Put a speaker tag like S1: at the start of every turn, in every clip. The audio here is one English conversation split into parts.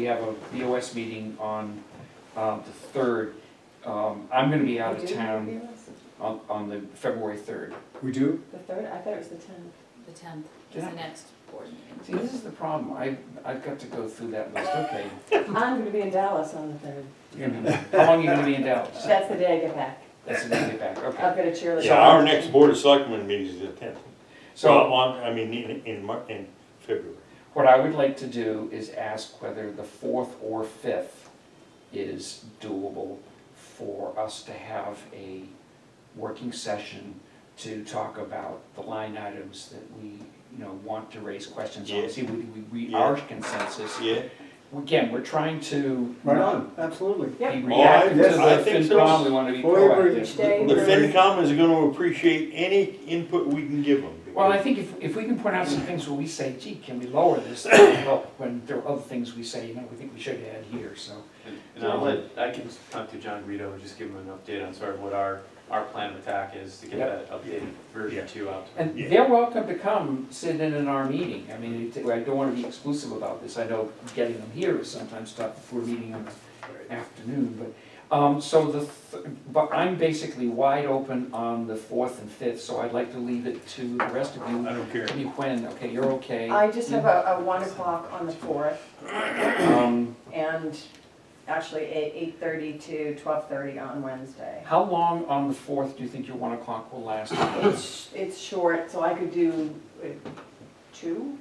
S1: We have a BOS meeting on um, the third. Um, I'm gonna be out
S2: We
S1: of
S2: do
S1: town
S2: interview us?
S1: on, on the February third.
S3: We do?
S2: The third, I thought it was the tenth.
S4: The tenth is
S1: Yeah.
S4: the next board meeting.
S1: See, this is the problem. I, I've got to go through that list, okay.
S2: I'm gonna be in Dallas on the third.
S1: you're gonna be- How long are you gonna be in Dallas?
S2: That's the day I get back.
S1: That's the day you get back, okay.
S2: I've got a cheerleader.
S5: Uh, Yeah, our next board of selectmen meeting is the tenth. So,
S1: So
S5: on, I mean, in, in Mar, in February.
S1: what I would like to do is ask whether the fourth or fifth is doable for us to have a working session to talk about the line items that we, you know, want to raise questions
S5: Yeah.
S1: on, see, if we, we, we,
S5: Yeah.
S1: our consensus.
S5: Yeah,
S1: Again, we're trying to
S3: Right
S1: not
S3: on, absolutely.
S1: be
S2: Yep.
S1: reactive to
S3: yes,
S1: the
S5: I think so.
S1: FinCom, we wanna be
S3: Well, we agree.
S1: proactive.
S2: Each day.
S5: the FinCom is gonna appreciate any input we can give them.
S1: Well, I think if, if we can point out some things where we say, gee, can we lower this, that'll help, when there are other things we say, you know, we think we should add here, so.
S6: And- And I'll let, I can talk to John Guido and just give him an update on sort of what our, our plan of attack is to get
S1: Yep.
S6: that updated
S5: Yeah.
S6: version two out.
S1: And
S5: Yeah.
S1: they're welcome to come sit in on our meeting. I mean, it- I don't want to be exclusive about this. I know getting them here is sometimes tough if we're meeting in the afternoon, but, um, so the, th- but I'm basically wide open on the fourth and fifth, so I'd like to leave it to the rest of you.
S5: I don't care.
S1: Maybe when, okay, you're okay.
S2: I just have a, a one o'clock on the fourth
S1: Um,
S2: and actually eight, eight thirty to twelve thirty on Wednesday.
S1: How long on the fourth do you think your one o'clock will last?
S2: It's, it's short, so I could do uh, two.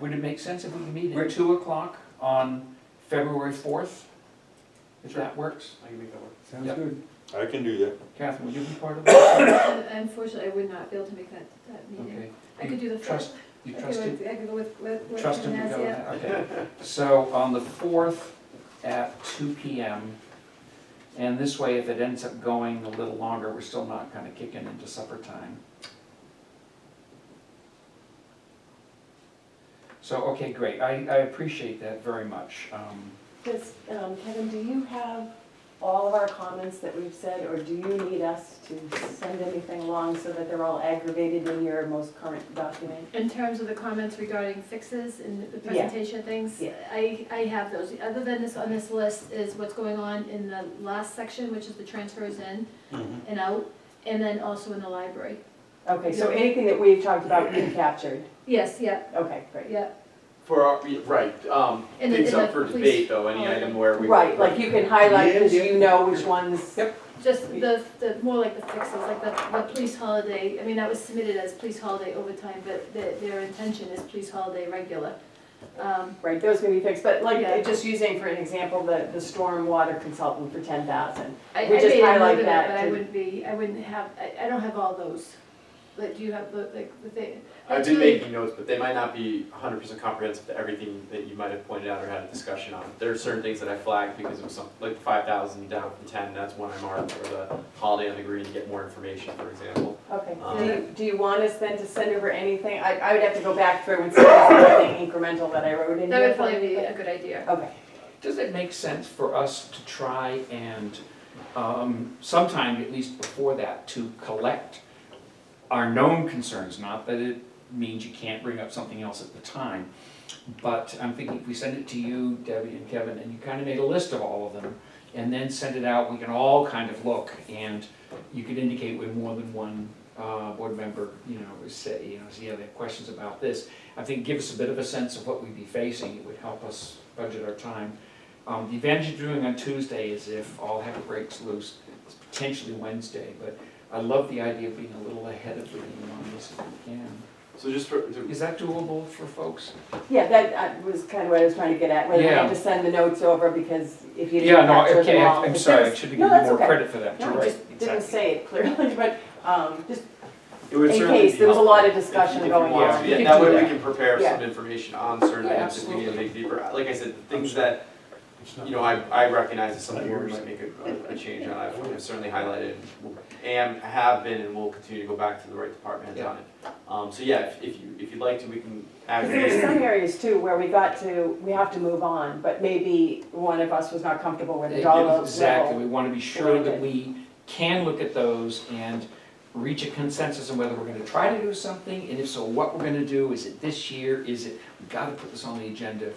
S1: Would it make sense if we could meet at
S3: Right.
S1: two o'clock on February fourth? If
S6: Sure.
S1: that works?
S6: I can make that work.
S3: Sounds
S1: Yeah.
S3: good.
S5: I can do that.
S1: Catherine, would you be part of that?
S7: Unfortunately, I would not be able to make that, that meeting.
S1: Okay.
S7: I could do the
S1: Trust,
S7: fourth.
S1: you
S7: I could
S1: trust him?
S7: with- I could go with, with, with
S1: Trust him to go
S7: Nancy.
S1: there, okay. So on the fourth at two P M. And this way, if it ends up going a little longer, we're still not kind of kicking into supper time. So, okay, great. I, I appreciate that very much. Um,
S2: Does, um, Kevin, do you have all of our comments that we've said, or do you need us to send anything along so that they're all aggravated in your most current document?
S7: In terms of the comments regarding fixes and the
S2: Yeah.
S7: presentation things,
S2: Yeah.
S7: I, I have those. Other than this, on this list is what's going on in the last section, which is the transfers in and out, and then also in the library.
S2: Okay, so anything that we've talked about, we captured.
S7: Yes, yeah,
S2: Okay, great.
S7: yeah.
S8: For our, right, um,
S7: And then-
S8: things
S7: and
S8: up
S7: the
S8: for
S7: police-
S8: debate though, any
S7: oh,
S8: item
S7: yeah.
S8: where we.
S2: Right, like you can highlight, because
S5: Yeah, yeah.
S2: you know which ones.
S1: Yep.
S7: Just the, the, more like the fixes, like the, the police holiday, I mean, that was submitted as police holiday overtime, but their, their intention is police holiday regular. Um,
S2: Right, those can be fixed, but like,
S7: Yeah.
S2: just using for an example, the, the storm water consultant for ten thousand.
S7: I, I
S2: We just
S7: made a
S2: highlight
S7: note of it,
S2: that
S7: but I
S2: to-
S7: wouldn't be, I wouldn't have, I, I don't have all those. Like, do you have the, like, the thing?
S6: I've
S7: That's
S6: been
S7: really-
S6: making notes, but they might not be hundred percent comprehensive to everything that you might have pointed out or had a discussion on. There are certain things that I flagged because it was some, like five thousand down from ten, that's one I marked, or the holiday on the green, to get more information, for example.
S2: Okay,
S6: Um,
S2: do you, do you want us then to send over anything? I, I would have to go back through and see if there's anything incremental that I wrote in
S7: That
S2: here.
S7: would probably be a good idea.
S2: Okay,
S1: Does it make sense for us to try and, um, sometime at least before that, to collect our known concerns? Not that it means you can't bring up something else at the time, but I'm thinking if we send it to you, Debbie and Kevin, and you kind of made a list of all of them, and then send it out, we can all kind of look, and you could indicate with more than one, uh, board member, you know, say, you know, see, yeah, they have questions about this. I think give us a bit of a sense of what we'd be facing, it would help us budget our time. Um, the advantage of doing on Tuesday is if all heck breaks loose, it's potentially Wednesday, but I love the idea of being a little ahead of the game on this if we can.
S6: So just for, to
S1: Is that doable for folks?
S2: yeah, that uh, was kind of what I was trying to get at, whether I
S1: Yeah.
S2: had to send the notes over, because if you
S1: Yeah,
S2: didn't
S1: no,
S2: capture
S1: okay,
S2: them all.
S1: I'm
S2: because
S1: sorry, I
S2: there's-
S1: should have
S2: No,
S1: given
S2: that's
S1: more
S2: okay.
S1: credit for that, you're
S2: No, I
S1: right,
S2: just didn't
S1: exactly.
S2: say it clearly, but, um, just
S6: It would
S2: In
S6: certainly
S2: case
S6: be
S2: there was a
S6: helpful
S2: lot of
S6: if you- if
S2: discussion
S6: you
S2: going
S6: want.
S1: on.
S6: Yeah,
S1: You
S6: that
S1: can do
S6: way
S1: that.
S6: we can prepare
S2: Yeah.
S6: some information on certain
S1: Yeah,
S6: items if we need to make deeper, like I said, the things
S5: Absolutely.
S6: that, you know, I, I recognize as something where we might make a, a change on, I've I've certainly highlighted. And have been and will continue to go back to the right department
S1: Yeah.
S6: on it. Um, so yeah, if- if you, if you'd like to, we can add.
S2: Because there were some areas too where we got to, we have to move on, but maybe one of us was not comfortable with the dollar level.
S1: Exactly, we want to be sure that we can look at those and reach a consensus on whether we're going to try to do something, and if so, what we're going to do, is it this year, is it, we've got to put this on the agenda